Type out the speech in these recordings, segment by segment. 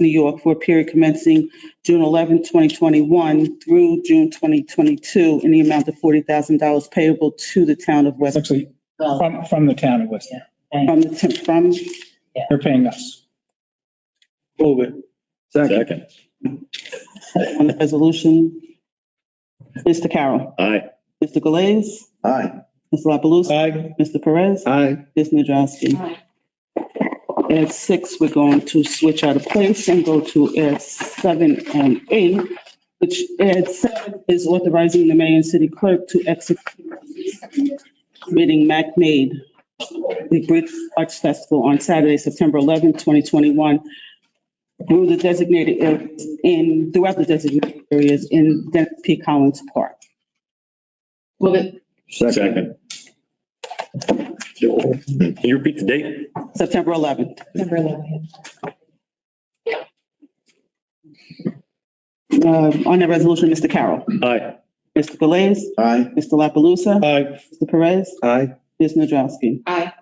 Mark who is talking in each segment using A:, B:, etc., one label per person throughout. A: New York, for a period commencing June 11, 2021 through June 2022, in the amount of $40,000 payable to the town of
B: It's
A: West,
B: actually
C: Well,
B: from, from the town of West.
A: from the, temp- from,
B: They're paying us.
D: Move it. Second.
E: Second.
A: on the resolution. Mr. Carroll.
E: Aye.
A: Mr. Galais.
D: Aye.
A: Mr. La Palusa.
B: Aye.
A: Mr. Perez.
D: Aye.
A: Ms. Nadrowski.
C: aye,
A: At six, we're going to switch out of place and go to at seven and eight, which at seven is authorizing the mayor and city clerk to execute meeting Mac Made, the Bridge Arts Festival on Saturday, September 11, 2021, through the designated areas in, throughout the designated areas in Dennis P. Collins Park.
C: move it,
E: Second. Can you repeat the date?
A: September 11th.
C: number 11.
A: Uh, On that resolution, Mr. Carroll.
E: Aye.
A: Mr. Galais.
D: Aye.
A: Mr. La Palusa.
B: Aye.
A: Mr. Perez.
D: Aye.
A: Ms. Nadrowski.
C: Aye,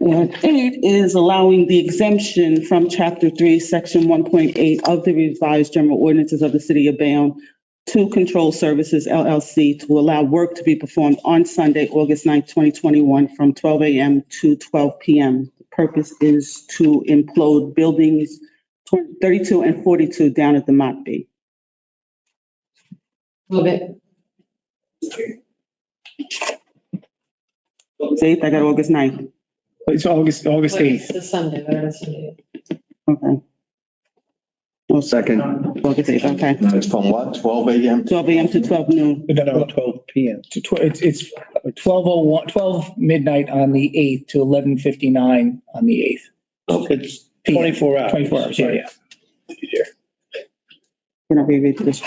A: And eight is allowing the exemption from Chapter 3, Section 1.8 of the revised general ordinances of the city of Bayonne to Control Services LLC to allow work to be performed on Sunday, August 9, 2021, from 12 a.m. to 12 p.m. The Purpose is to implode buildings 32 and 42 down at the Mott Bay.
C: move it,
A: August 8th, I got August 9th.
B: It's August, August
C: it's
B: 8th.
C: the Sunday, whatever Sunday.
A: Okay.
D: Second.
A: August 8th, okay.
D: It's from what, twelve AM?
A: 12 a.m. to 12 noon.
B: No, no,
D: Twelve PM.
B: to tw- It's, it's 12:01, 12 midnight on the 8th to 11:59 on the
D: It's
B: 8th.
D: twenty-four hours.
B: 24 hours, yeah, yeah.
A: Can I reread this?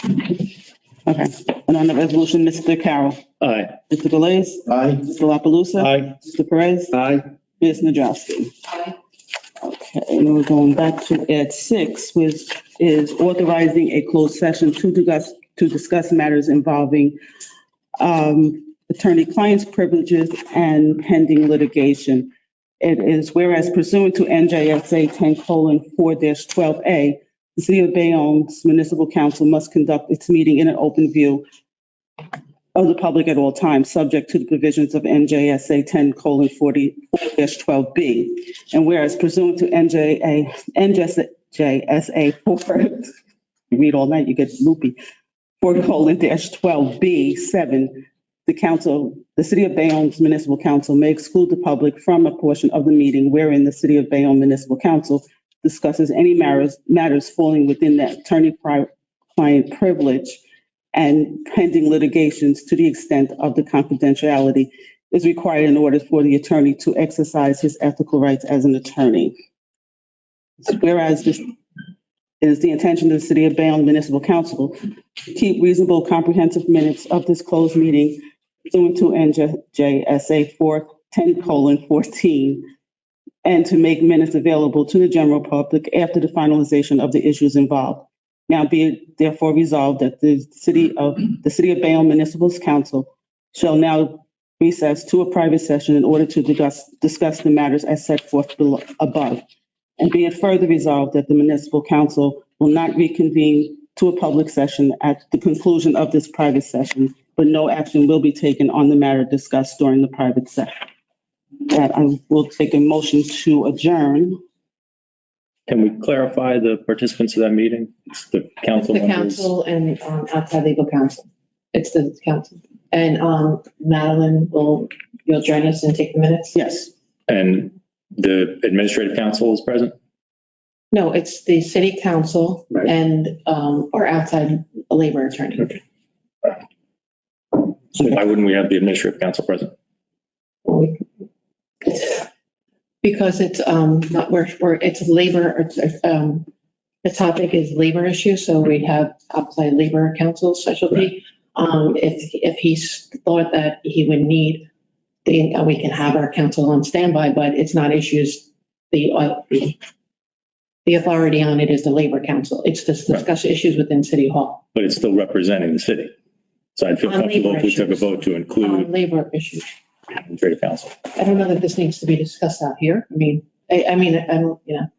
A: Okay, and on the resolution, Mr. Carroll,
E: Aye.
A: Mr. Galais,
D: Aye.
A: Mr. La Palusa,
B: Aye.
A: Mr. Perez,
D: Aye.
A: Ms. Nadrowski.
C: Aye,
A: Okay, and we're going back to Ed six, which is authorizing a closed session to discuss, to discuss matters involving um, attorney-client's privileges and pending litigation. It is whereas pursuant to NJSA ten four twelve A, the city of Bayonne's municipal council must conduct its meeting in an open view of the public at all times, subject to the provisions of NJSA ten forty twelve B. And whereas pursuant to NJA, NJSA four, you read all night, you get loopy, four colon dash twelve B seven, the council, the city of Bayonne's municipal council may exclude the public from a portion of the meeting wherein the city of Bayonne municipal council discusses any matters, matters falling within that attorney-client privilege and pending litigations to the extent of the confidentiality is required in order for the attorney to exercise his ethical rights as an attorney. Whereas this is the intention of the City of Bayonne Municipal Council to keep reasonable comprehensive minutes of this closed meeting pursuant to NJSA four ten colon fourteen and to make minutes available to the general public after the finalization of the issues involved. Now be it therefore resolved that the city of, the City of Bayonne Municipal Council shall now recess to a private session in order to discuss, discuss the matters as set forth below, above. And be it further resolved that the municipal council will not reconvene to a public session at the conclusion of this private session, but no action will be taken on the matter discussed during the private session. That I will take a motion to adjourn.
E: Can we clarify the participants of that meeting? It's the council
C: the
E: members.
C: council and um, outside legal counsel, it's the council. And um, Madeline will, you'll join us and take the minutes?
A: Yes.
E: And the administrative council is present?
C: No, it's the city council
E: Right.
C: and, um, or outside labor attorney.
E: Why wouldn't we have the administrative council present?
C: Because it's, um, not, we're, we're, it's labor, um, the topic is labor issue, so we'd have outside labor council specialty. Um, if, if he's thought that he would need, then we can have our council on standby, but it's not issues, the, uh, the authority on it is the labor council. It's to discuss issues within city hall,
E: But it's still representing the city. So I'd feel
C: On
E: comfortable if we
C: labor
E: took a vote to
C: um,
E: include
C: labor issues.
E: administrative council.
C: I don't know that this needs to be discussed out here. I mean, I, I mean, I don't, you know,